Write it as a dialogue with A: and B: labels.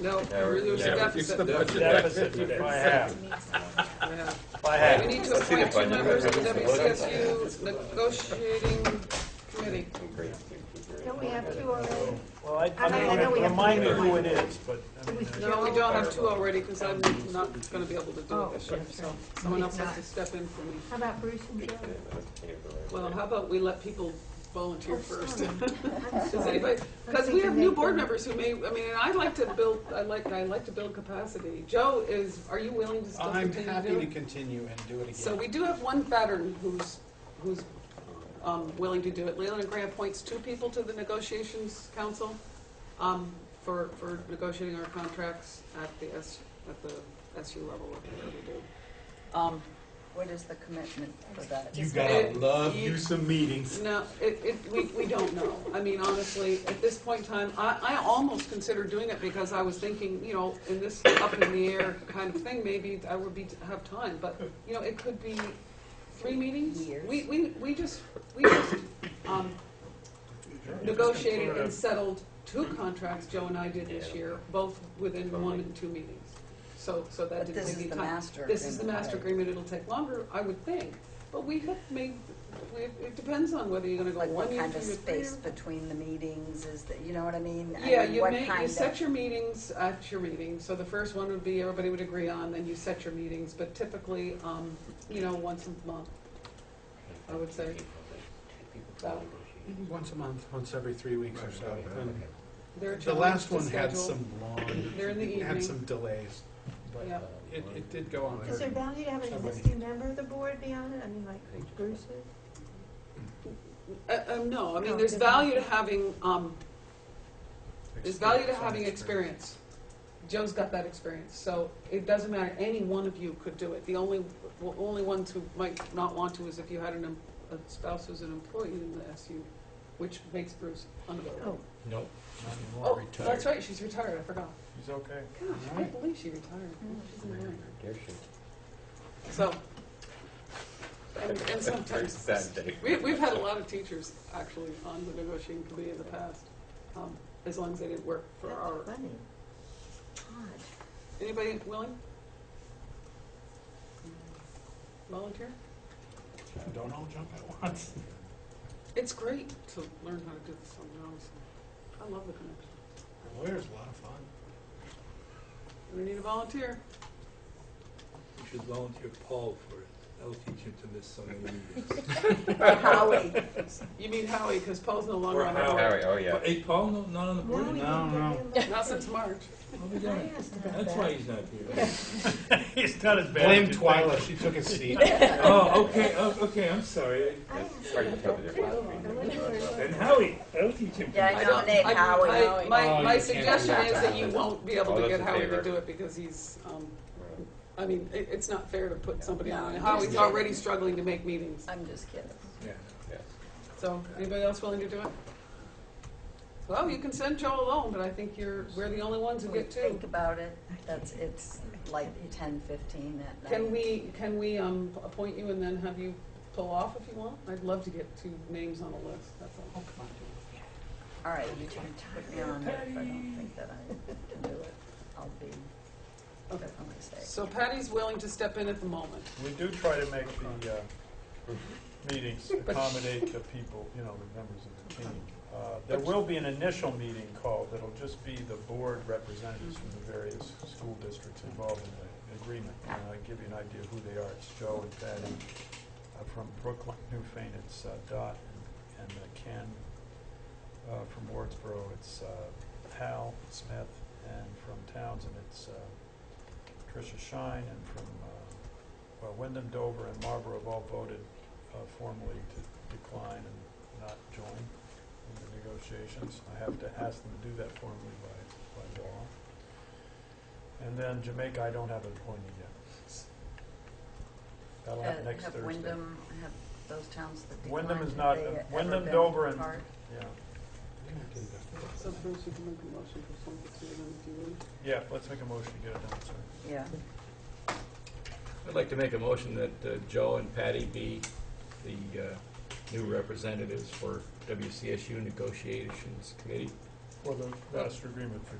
A: No, there's a
B: Yeah,
C: it's the
A: deficit.
C: budget.
D: Deficit by half,
A: Yeah.
D: by
A: We
D: half.
A: need to appoint two
B: budget.
A: members of the WCSU negotiating committee.
E: Don't we have two already?
D: Well, I,
E: I- I know
D: I
E: we
D: mean,
E: have
D: remind me
E: to-
D: who it is, but, I
E: Do we
D: mean,
E: still-
A: No, we don't have two already because I'm not going to be able to do
E: Oh,
A: it this year,
E: that's
A: so
E: right.
A: someone else
E: He's
A: has to
E: not.
A: step in for me.
E: How about Bruce and Joe?
A: Well, how about we let people volunteer first?
E: I'm
A: Does
E: sorry.
A: anybody, because
E: I'm
A: we have new
E: thinking
A: board
E: they-
A: members who may, I mean, and I like to build, I like, I like to build capacity. Joe is, are you willing to still
C: I'm
A: continue to
C: happy
A: do
C: to
A: it?
C: continue and do it again.
A: So we do have one veteran who's, who's um, willing to do it. Leland Gray appoints two people to the negotiations council um, for, for negotiating our contracts at the S, at the SU level, whatever we do. Um,
F: What is the commitment for that?
G: You
A: gotta
G: gotta
A: It- love
G: love
A: you- you
G: you some meetings.
A: No, it, it, we, we don't know. I mean, honestly, at this point in time, I, I almost considered doing it because I was thinking, you know, in this up in the air kind of thing, maybe I would be, have time, but, you know, it could be three meetings.
F: Years.
A: We, we, we just, we just, um, negotiated and settled two contracts Joe and I did this year, both within one and two meetings. So, so that
F: But
A: didn't
F: this
A: take any
F: is the
A: time.
F: master
A: This is the
F: agreement,
A: master
F: right?
A: agreement, it'll take longer, I would think, but we have made, we- it depends on whether you're gonna go
F: Like
A: one
F: what
A: year,
F: kind
A: two
F: of
A: year, three year.
F: space between the meetings is that, you know what I mean? I
A: Yeah,
F: mean,
A: you
F: what
A: make,
F: kind
A: you
F: of-
A: set your meetings at your meeting, so the first one would be everybody would agree on, then you set your meetings, but typically, um, you know, once a month. I would say. About-
C: Once a month, once every three weeks or so. And
A: There are
C: The last one
A: challenges to
C: had
A: schedule.
C: some long,
A: They're in the evening.
C: had some delays, but
A: Yeah.
C: it, it did go on.
E: Is there
C: for-
E: value to have an existing member of the board be on it? I mean, like Bruce is?
A: Uh, um, no, I
F: Oh,
A: mean,
E: No,
A: there's
E: doesn't
A: value to
E: matter.
A: having, um, there's value to having experience. Joe's got that experience, so it doesn't matter, any one of you could do it. The only, well, only ones who might not want to is if you had an, em- a spouse who's an employee in the SU, which makes Bruce unavailable.
E: Oh,
G: Nope.
C: Not anymore,
A: Oh,
C: retired.
A: that's right, she's retired, I forgot.
D: he's okay.
A: Gosh, I can't believe she retired. Oh, She's annoying. So, and, and sometimes,
B: Sad day.
A: we, we've had a lot of teachers actually on the negotiating committee in the past, um, as long as they didn't work for our,
F: That's funny. Odd.
A: anybody willing? Volunteer?
C: Don't all jump at once.
A: It's great to learn how to do this on your own, so I love the connection.
C: Lawyer's a lot of fun.
A: We need a volunteer.
G: You should volunteer Paul for it. That'll teach him to miss so many meetings.
F: Howie,
A: You mean Howie, because Paul's no longer
G: Or
A: on the
G: Howie.
A: board.
B: Harry, oh, yeah.
G: But, Hey, Paul, no, not on the board?
E: Wally
G: anymore?
C: No,
E: didn't get
A: Not
E: him.
A: since March.
G: I'll be
E: I
G: darned.
E: asked about
G: That's why
E: that.
G: he's not here.
D: He's not as bad. as
C: Blame
D: you think.
C: Twyla, she took a seat.
G: Oh, okay, oh, okay, I'm sorry. I-
E: I asked
B: Sorry,
E: about
B: you told
E: that
B: me
E: too.
B: there was a
E: I wonder where it was.
G: And Howie, that'll teach him. to
F: Yeah, I
G: miss.
A: I
F: don't-
A: don't,
F: nominate
A: I,
F: Howard
A: I,
F: Howie.
A: my,
C: Oh,
A: my
C: you can't do Oh,
A: suggestion
F: that.
A: is that you won't be able
B: All
A: to
B: those
A: get
B: in
A: Howie to
B: favor?
A: do it because he's, um, I mean, it, it's not fair to put somebody
F: No,
A: on.
F: I'm
A: Howie's
F: just-
A: already struggling to make meetings.
F: I'm just kidding.
G: Yeah.
B: Yeah.
A: So, anybody else willing to do it? Well, you can send Joe alone, but I think you're, we're the only ones who
F: We
A: get two.
F: think about it, that's, it's like ten fifteen at night.
A: Can we, can we, um, appoint you and then have you pull off if you want? I'd love to get two names on a list, that's all.
F: All right, you can put me on, but if I don't think that I can do it, I'll be
A: Okay.
F: definitely safe.
A: So Patty's willing to step in at the moment.
D: We do try to make the uh, meetings accommodate the people, you know, the members of the team. Uh, There will be an initial meeting called that'll just be the board representatives from the various school districts involved in the agreement. And I give you an idea of who they are. It's Joe and Patty uh, from Brooklyn, Newfane, it's uh, Dot, and uh, Ken uh, from Wardsboro, it's uh, Hal Smith, and from Townsend, it's uh, Tricia Shine, and from uh, well, Wyndham, Dover, and Marlboro have all voted uh, formally to decline and not join in the negotiations. I have to ask them to do that formally by, by law. And then Jamaica, I don't have an appointee yet. That'll
F: Uh,
D: happen next
F: Have
D: Thursday.
F: Wyndham, have those towns that declined,
D: Wyndham
F: have
D: is
F: they
D: not-
F: ever
D: Wyndham,
F: been
D: Dover, and-
F: part?
D: Yeah,
A: So Bruce, you can make a motion for something to them if you want.
D: yeah, let's make a motion to get it done, sorry.
F: Yeah,
H: I'd like to make a motion that uh, Joe and Patty be the uh, new representatives for WCSU Negotiations Committee.
D: For the master agreement for